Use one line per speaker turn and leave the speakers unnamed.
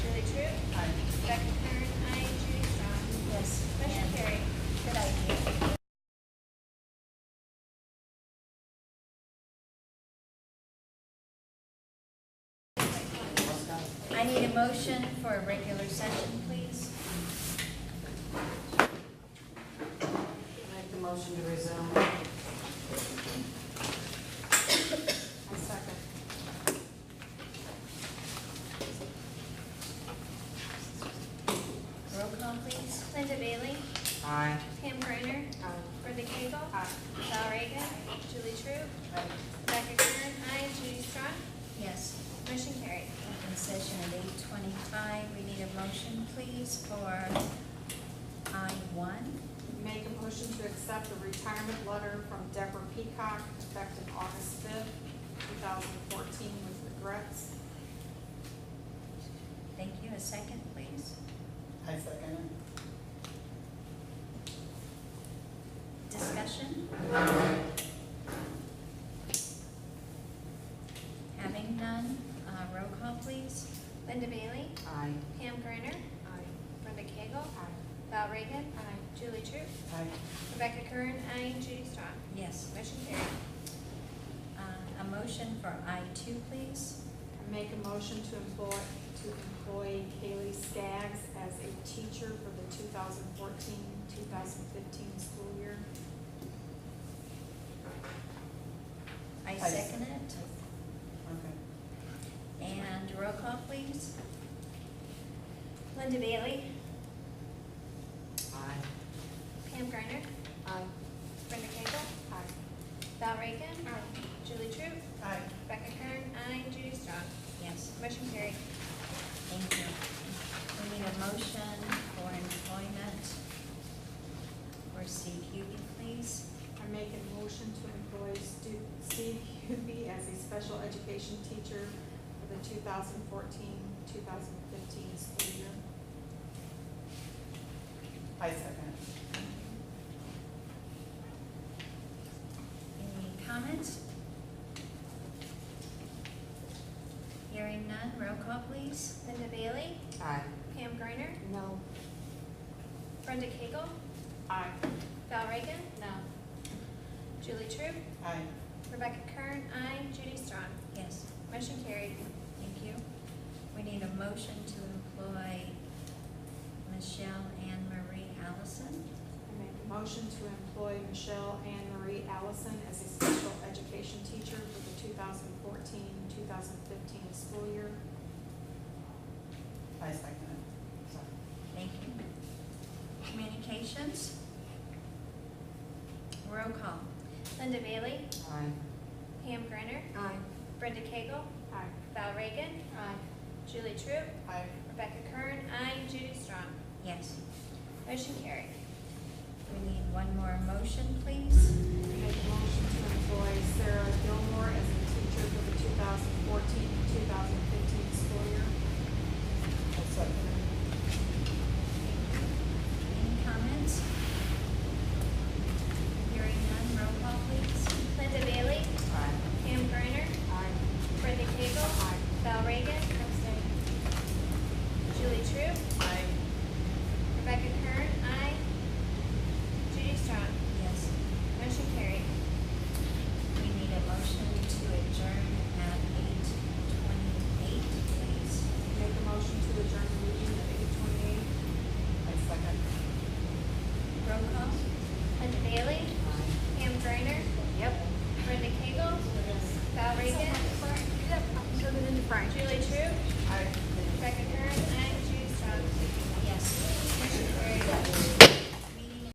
a motion for a regular session, please?
Make the motion to resume. I second.
Roll call, please.
Linda Bailey,
Aye.
Pam Griner,
Uh,
Brenda Cagle, Val Reagan, Julie True, Rebecca Kern, aye, Judy Strong,
Yes,
motion carried.
open session at eight twenty-five. We need a motion, please, for I one.
Make a motion to accept the retirement letter from Deborah Peacock effective August fifth, two thousand fourteen with regrets.
Thank you. A second, please.
I second it.
Discussion? Having none, uh, roll call, please.
Linda Bailey,
Aye.
Pam Griner,
Aye.
Brenda Cagle,
Aye.
Val Reagan, Julie True,
Aye.
Rebecca Kern, aye, Judy Strong,
Yes,
motion carried.
uh, a motion for I two, please.
I Make a motion to employ, to employ Kaylee Skaggs as a teacher for the 2014-2015 school year.
I
I-
second it.
Okay.
And roll call, please.
Linda Bailey,
Aye.
Pam Griner,
Aye.
Brenda Cagle,
Aye.
Val Reagan, Julie True,
Aye.
Rebecca Kern, aye, Judy Strong,
Yes,
motion carried.
thank you. We need a motion for employment for Steve Hubie, please.
I make a motion to employ Stu- Steve Hubie as a special education teacher for the 2014-2015 school year.
I second it.
Any comments? Hearing none, roll call, please.
Linda Bailey,
Aye.
Pam Griner,
No.
Brenda Cagle,
Aye.
Val Reagan? No. Julie True?
Aye.
Rebecca Kern? Aye. Judy Strong?
Yes,
Motion carried.
thank you. We need a motion to employ Michelle Anne Marie Allison.
I make a motion to employ Michelle Anne Marie Allison as a special education teacher for the 2014-2015 school year.
I second it. Sorry.
Thank you. Communications? Roll call.
Linda Bailey?
Aye.
Pam Griner?
Aye.
Brenda Cagle?
Aye.
Val Reagan? Aye. Julie True?
Aye.
Rebecca Kern? Aye. Judy Strong?
Yes.
Motion carried.
We need one more motion, please.
I Make a motion to employ Sarah Gilmore as a teacher for the 2014-2015 school year.
I second it.
Any comments? Hearing none, roll call, please.
Linda Bailey?
Aye.
Pam Griner?
Aye.
Brenda Cagle?
Aye.
Val Reagan? Julie True?
Aye.
Rebecca Kern? Aye. Judy Strong?
Yes.
Motion carried.
We need a motion to adjourn at eight twenty-eight, please.
Make a motion to adjourn the meeting at eight twenty-eight.
I second it.
Roll call?
Linda Bailey? Pam Griner?
Yep.
Brenda Cagle? Val Reagan? Julie True?
Aye.